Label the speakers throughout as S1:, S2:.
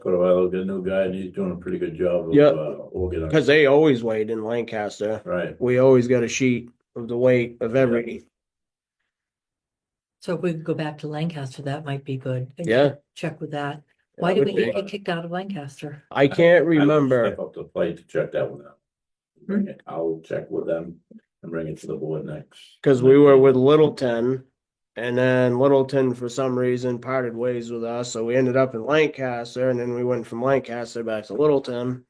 S1: Quite a while, got a new guy and he's doing a pretty good job of,
S2: Yeah.
S1: uh, organizing.
S2: Cause they always weighed in Lancaster.
S1: Right,
S2: We always got a sheet of the weight of every,
S3: So if we could go back to Lancaster, that might be good. and
S2: yeah.
S3: Check with that.
S2: That
S3: Why did
S2: would
S3: we
S2: be-
S3: get kicked out of Lancaster?
S2: I can't
S1: I will
S2: remember.
S1: Step up to the plate to check that one out. Bring it, I'll check with them and bring it to the board next.
S2: Cause we were with Littleton. And then Littleton, for some reason, parted ways with us, so we ended up in Lancaster, and then we went from Lancaster back to Littleton.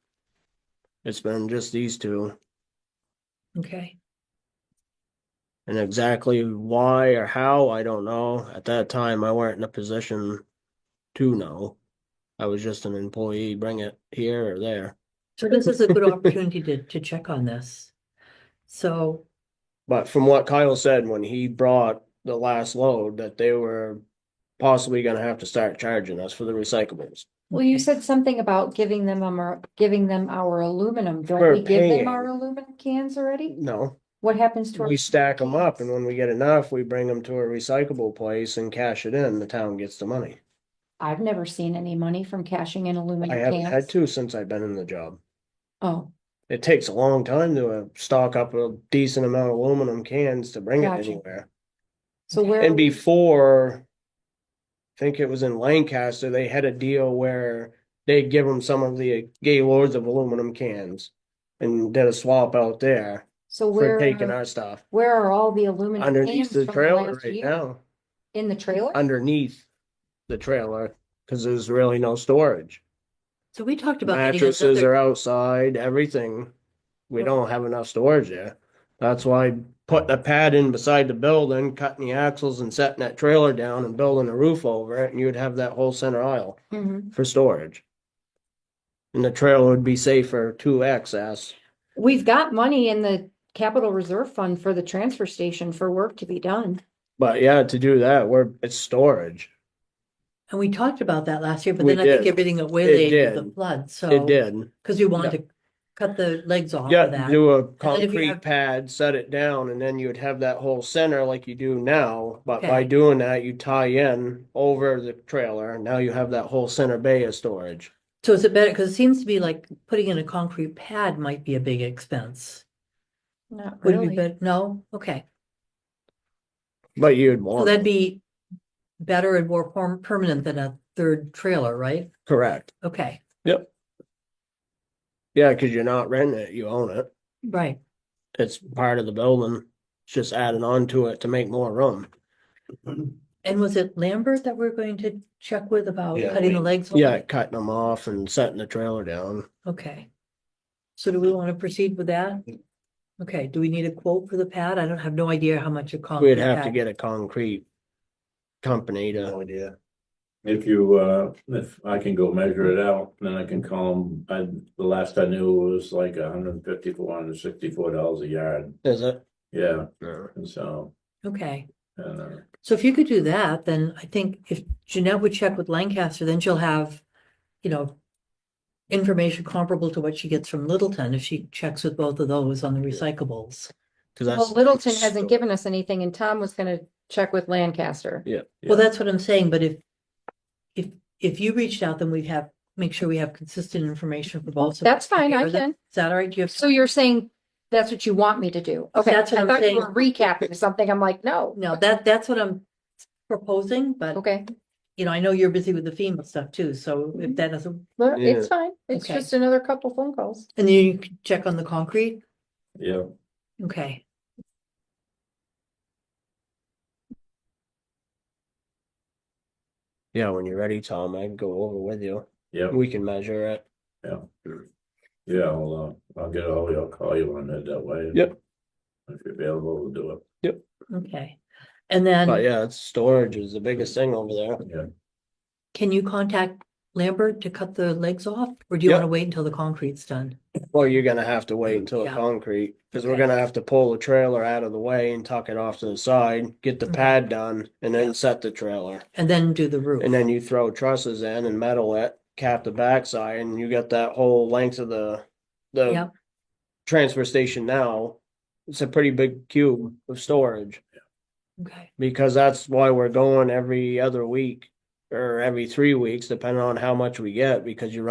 S2: It's been just these two,
S3: Okay,
S2: and exactly why or how, I don't know. At that time, I weren't in a position to know. I was just an employee, bring it here or there.
S3: so this is a good opportunity to, to check on this. So,
S2: But from what Kyle said when he brought the last load, that they were possibly gonna have to start charging us for the recyclables.
S4: Well, you said something about giving them our, giving them our aluminum.
S2: We're
S4: Don't we give
S2: paying.
S4: them our aluminum cans already?
S2: No,
S4: What happens to our?
S2: we stack them up and when we get enough, we bring them to a recyclable place and cash it in. The town gets the money.
S4: I've never seen any money from cashing in aluminum
S2: I haven't had
S4: cans.
S2: to since I've been in the job.
S4: Oh,
S2: It takes a long time to uh, stock up a decent amount of aluminum cans to bring it
S4: Gotcha.
S2: anywhere.
S4: so where?
S2: And
S4: are we-
S2: before, I think it was in Lancaster, they had a deal where they'd give them some of the Gaylords of aluminum cans and did a swap out there
S4: So
S2: for
S4: where,
S2: taking
S4: are-
S2: our stuff
S4: where are all the aluminum
S2: underneath
S4: cans
S2: the
S4: from
S2: trailer
S4: last
S2: right
S4: year?
S2: now,
S4: In the trailer?
S2: underneath the trailer, because there's really no storage.
S3: so we talked about. getting
S2: Mattresses
S3: another-
S2: are outside, everything. We don't have enough storage there. That's why putting a pad in beside the building, cutting the axles and setting that trailer down and building a roof over it, and you'd have that whole center aisle
S4: Mhm.
S2: for storage. And the trailer would be safer to access.
S4: We've got money in the capital reserve fund for the transfer station for work to be done.
S2: But yeah, to do that, we're, it's storage.
S3: And we talked about that last year, but
S2: We
S3: then I think
S2: did.
S3: everything got waylaid
S2: It
S3: with the
S2: did.
S3: flood,
S2: It
S3: so.
S2: did.
S3: Cause you wanted to cut the legs off of
S2: Yeah,
S3: that.
S2: do a
S3: then if you
S2: concrete
S3: have-
S2: pad, set it down, and then you would have that whole center like you do now. But by
S3: Okay.
S2: doing that, you tie in over the trailer, and now you have that whole center bay of storage.
S3: So is it better, cause it seems to be like putting in a concrete pad might be a big expense.
S4: Not
S3: Would it be
S4: really.
S3: better? No? Okay.
S2: But you'd
S3: So
S2: want,
S3: that'd be better and more perm- permanent than a third trailer, right?
S2: correct.
S3: Okay,
S2: Yeah, because you're not renting it, you own it.
S3: right.
S2: It's part of the building. It's just adding on to it to make more room.
S3: And was it Lambert that we're going to check with about
S2: Yeah,
S3: cutting
S2: we-
S3: the legs? off?
S2: Yeah, cutting them off and setting the trailer down.
S3: Okay. So do we want to proceed with that? Okay, do we need a quote for the pad? I don't have no idea how much it costs.
S2: We'd have to get a concrete company to,
S1: idea. If you, uh, if I can go measure it out, then I can call them, I, the last I knew it was like a hundred and fifty, four hundred and sixty-four dollars a yard,
S2: is it?
S1: yeah,
S2: No.
S1: and so,
S3: Okay,
S1: and, uh.
S3: so if you could do that, then I think if Jeanette would check with Lancaster, then she'll have, you know, information comparable to what she gets from Littleton if she checks with both of those on the recyclables.
S2: Cause
S4: Well,
S2: that's.
S4: Littleton hasn't given us anything and Tom was gonna check with Lancaster.
S3: Well,
S1: yeah.
S3: that's what I'm saying, but if, if, if you reached out, then we'd have, make sure we have consistent information for both.
S4: That's fine,
S3: Okay,
S4: I
S3: are that-
S4: can.
S3: Is that all right? Do you have?
S4: So you're saying that's what you want me to do? Okay, I
S3: That's what I'm
S4: thought
S3: saying.
S4: you were recapping something. I'm like, no.
S3: No, that, that's what I'm proposing, but,
S4: Okay,
S3: you know, I know you're busy with the FEMA stuff too, so
S4: Mm-hmm.
S3: if that doesn't,
S4: No,
S2: Yeah.
S4: it's fine. It's
S3: Okay.
S4: just another couple phone calls.
S3: and then you can check on the concrete,
S1: Yeah,
S3: okay.
S2: Yeah, when you're ready, Tom, I can go over with you.
S1: yeah,
S2: We can measure it.
S1: yeah, I'll, uh, I'll get all, I'll call you on it that way.
S2: Yep.
S1: If you're available, we'll do it,
S3: Okay, and
S2: But
S3: then
S2: yeah, it's storage is the biggest thing over there.
S1: yeah,
S3: can you contact Lambert to cut the legs off? Or do you
S2: Yeah.
S3: want to wait until the concrete's done?
S2: Well, you're gonna have to wait until it's
S3: Yeah.
S2: concrete, cause we're
S3: Okay.
S2: gonna have to pull the trailer out of the way and tuck it off to the side, get the
S3: Mhm.
S2: pad done, and then set the trailer.
S3: And then do the roof?
S2: And then you throw trusses in and metal it, cap the backside, and you got that whole length of the,
S3: Yeah.
S2: the transfer station now. It's a pretty big cube of storage,
S3: Okay,
S2: because that's why we're going every other week or every three weeks, depending on how much we get, because you run